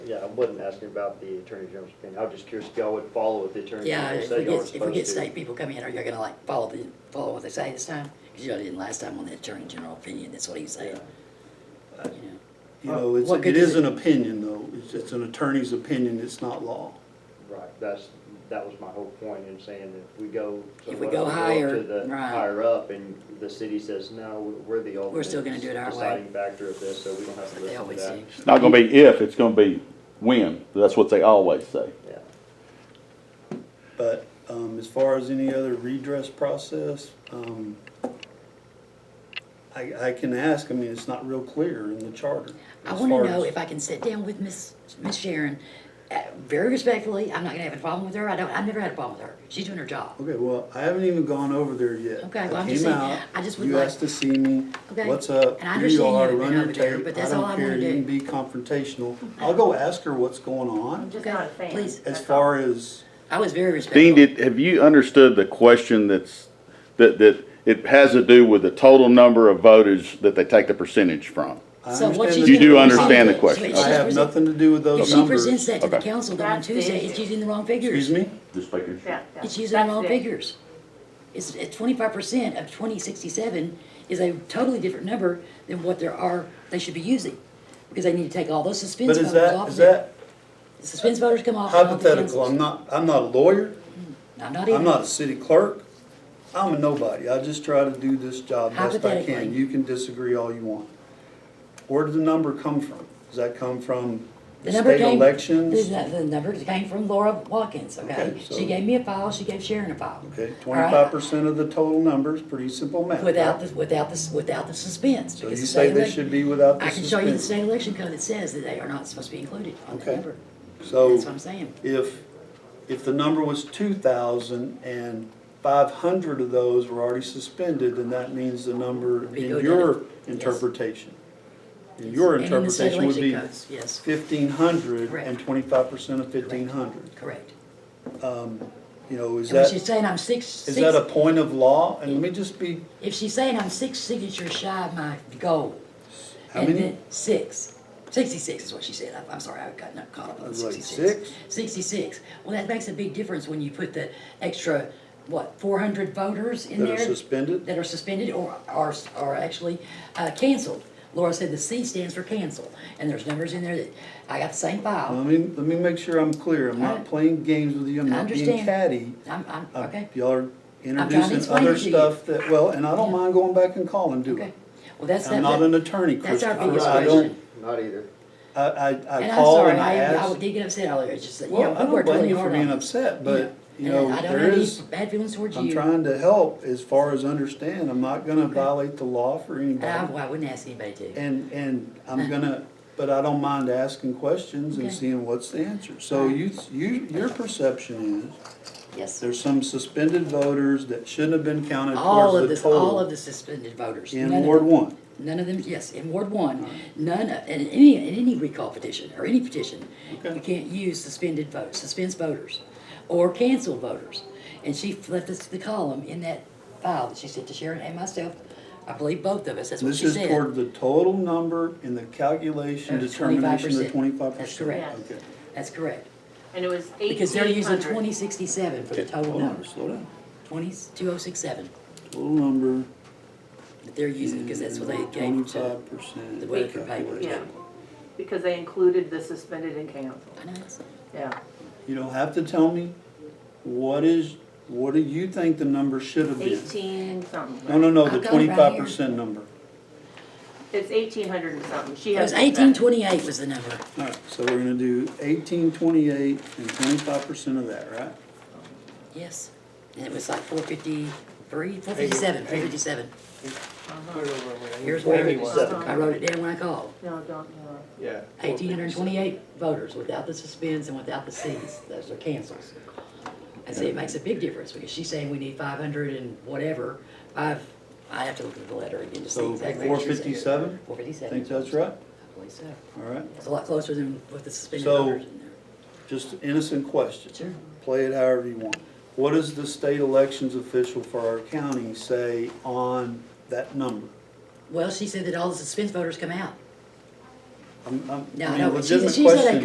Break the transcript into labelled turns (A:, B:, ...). A: yeah, I wasn't asking about the attorney general's opinion, I was just curious if y'all would follow what the attorney
B: Yeah,
A: general
B: if
A: said
B: we
A: y'all were
B: get, if we get
A: supposed
B: state
A: to.
B: people coming in, are you gonna like follow the, follow what they say this time? Cause you all didn't last time on the attorney general opinion, that's what he said, you know.
C: You know, it's,
B: What
C: it
B: good
C: is
B: is
C: an
B: it?
C: opinion though, it's, it's an attorney's opinion, it's not law.
A: Right, that's, that was my whole point in saying that if we go.
B: If we
A: somewhere,
B: go
A: up
B: higher,
A: To the
B: right.
A: higher up and the city says, no, we're the ultimate.
B: still gonna do it our way."
A: Deciding factor of this, so we don't have to
B: But
A: listen
B: they
A: to
B: always
A: that.
B: do.
D: It's not gonna be if, it's gonna be when. That's what they always say.
A: Yeah,
C: But, um, as far as any other redress process, um, I, I can ask, I mean, it's not real clear in the charter.
B: I
C: as
B: wanna
C: far
B: know
C: as-
B: if I can sit down with Miss, Miss Sharon, uh, very respectfully, I'm not gonna have a problem with her, I don't, I've never had a problem with her, she's doing her job.
C: Okay, well, I haven't even gone over there yet.
B: Okay,
C: I
B: well, I'm just
C: came
B: saying,
C: out,
B: I just would
C: You
B: like-
C: asked to see me,
B: Okay,
C: what's up,
B: and I
C: here
B: understand you
C: you are,
B: haven't
C: run
B: been
C: your
B: over there,
C: tape,
B: but
C: I
B: that's all I
C: don't
B: wanna
C: care,
B: do.
C: you can be confrontational. I'll go ask her what's going on,
E: Just not a fan.
B: Please.
C: as
E: That's all.
C: far as,
B: I was very respectful.
D: Dean, did, have you understood the question that's, that, that it has to do with the total number of voters that they take the percentage from?
C: I
B: So what
C: understand
B: she's
D: You
C: the-
D: do
B: gonna present-
D: understand the
B: so
D: question.
B: if
C: I
B: she's
C: have
B: present-
C: nothing to do with
B: If
C: those
B: she
C: numbers.
B: presents that to the
D: Okay.
B: council though on
E: That's the
B: Tuesday, it's
E: issue.
B: using the wrong figures.
C: Excuse me?
D: Just making
E: Yeah, yeah.
B: It's using the
E: That's
B: wrong
E: it.
B: figures. It's, it's twenty-five percent of twenty sixty-seven is a totally different number than what there are, they should be using. Because they need to take all those suspense
C: But is
B: voters
C: that,
B: off
C: is
B: of it.
C: that
B: Suspense voters come off. and all the
C: hypothetical? I'm
B: councils.
C: not, I'm not a lawyer,
B: I'm not
C: I'm
B: even,
C: not a city clerk, I'm a nobody. I just try to do this job best I can.
B: Hypothetically.
C: You can disagree all you want. Where did the number come from? Does that come from
B: the number
C: state
B: came.
C: elections?
B: The, the number came from Laura Watkins, okay?
C: Okay, so-
B: She gave me a file, she gave Sharon a file.
C: Okay,
B: All right?
C: twenty-five percent of the total numbers, pretty simple math.
B: Without the, without the, without the suspense.
C: So you
B: because the
C: say
B: state
C: they
B: elec-
C: should be without the
B: I can show you the
C: suspense.
B: state election code that says that they are not supposed to be included on that
C: Okay.
B: number. That's what
C: So
B: I'm saying.
C: if, if the number was two thousand and five hundred of those were already suspended, then that means the number
B: We go
C: in
B: down
C: your
B: to- yes.
C: interpretation. In your
B: And in the state
C: interpretation would
B: election
C: be
B: codes, Yes,
C: fifteen hundred
B: Correct.
C: and twenty-five percent of fifteen hundred.
B: correct.
C: You know, is
B: And when
C: that,
B: she's
C: is
B: saying I'm six, six,
C: that a point of law? And let me just be,
B: if she's saying I'm six signatures shy of my goal.
C: how
B: and
C: many?
B: then Six. Sixty-six is what she said. I- I'm sorry, I got not caught up on
C: was like,
B: sixty-six.
C: six?
B: Sixty-six. Well, that makes a big difference when you put the extra, what, four hundred voters in
C: That are
B: there?
C: suspended?
B: That are suspended or are, are actually uh, canceled. Laura said the C stands for cancel, and there's numbers in there that, I got the same
C: Let
B: file.
C: me, let me make sure I'm clear. I'm not
B: Alright.
C: playing games with you. I'm
B: I
C: not being
B: Uh, understand.
C: catty.
B: I'm, I'm,
C: Uh,
B: okay,
C: Y'all are introducing
B: explain it
C: other
B: to you.
C: stuff that, well, and I don't
B: Yeah.
C: mind going back and calling, do
B: okay.
C: it.
B: Well, that's that.
C: I'm not an attorney,
B: that's our
C: Christopher.
B: biggest
C: I don't,
B: question.
A: not either.
C: I, I,
B: And
C: I
B: I'm
C: call
B: sorry,
C: and I
B: I, I
C: ask.
B: did get upset earlier, oh, it's just that, you know,
C: Well, I
B: we
C: don't
B: worked really
C: blame you for
B: hard on
C: being
B: this.
C: upset, but, you
B: And
C: know,
B: I don't
C: there
B: have any
C: is,
B: bad feelings towards
C: I'm
B: you.
C: trying to help as far as understand. I'm not gonna violate the law for
B: And I,
C: anybody.
B: well, I wouldn't ask anybody to.
C: And, and I'm gonna, but I don't mind asking questions and
B: Okay.
C: seeing what's the answer. So you, you, your perception is
B: Yes.
C: There's some suspended voters that shouldn't have been counted
B: All of
C: towards the
B: this, all of
C: total
B: the suspended voters. None
C: in
B: of
C: Ward
B: them-
C: one.
B: None of them, yes, in Ward one, none, of- in any, in any recall petition or any petition,
C: Okay.
B: you can't use suspended votes, suspense voters, or cancel voters. And she left us the column in that file that she sent to Sharon and myself, I believe both of us, that's what
C: This
B: she
C: is
B: said.
C: toward the total number in the calculation
B: Of
C: determination of the
B: 25%.
C: twenty-five percent.
B: That's correct. That's correct,
E: And it was eighteen hundred.
B: because they're using twenty sixty-seven for the total
C: Hold on,
B: numbers,
C: slow down.
B: twenty, two oh six seven,
C: Total number.
B: that they're using, because that's what they gave to.
C: Twenty-five percent.
B: the way it could pay for it.
E: Yeah, because they included the suspended and canceled,
B: I know it's-
E: yeah.
C: You don't have to tell me, what is, what do you think the number should have been?
E: Eighteen something.
C: No, no, no, the
B: I've got it right
C: twenty-five
B: here.
C: percent number.
E: It's eighteen hundred and something, she
B: It
E: has.
B: was eighteen twenty-eight was the number.
C: All right, so we're gonna do eighteen, twenty-eight, and twenty-five percent of that, right?
B: Yes, and it was like four fifty-three, four fifty-seven, four fifty-seven. Here's where it was,
A: Seven.
B: I wrote it down when I called,
E: No, don't, no.
F: Yeah.
B: eighteen hundred and twenty-eight voters without the suspends and without the Cs, those are cancels. And see, it makes a big difference, because she's saying we need five hundred and whatever, five, I have to look at the letter again to see
C: So,
B: exactly.
C: 457?
B: Four fifty-seven.
C: Think that's right?
B: I believe so,
C: All right,
B: it's a lot closer than with the suspended
C: So-
B: voters in there.
C: just an innocent question.
B: Sure.
C: play it however you want. What does the state elections official for our county say on that number?
B: Well, she said that all the suspense voters come out.
C: I'm, I'm,
B: No,
C: I mean,
B: no,
C: a
B: but she-
C: legitimate
B: she said they
C: question.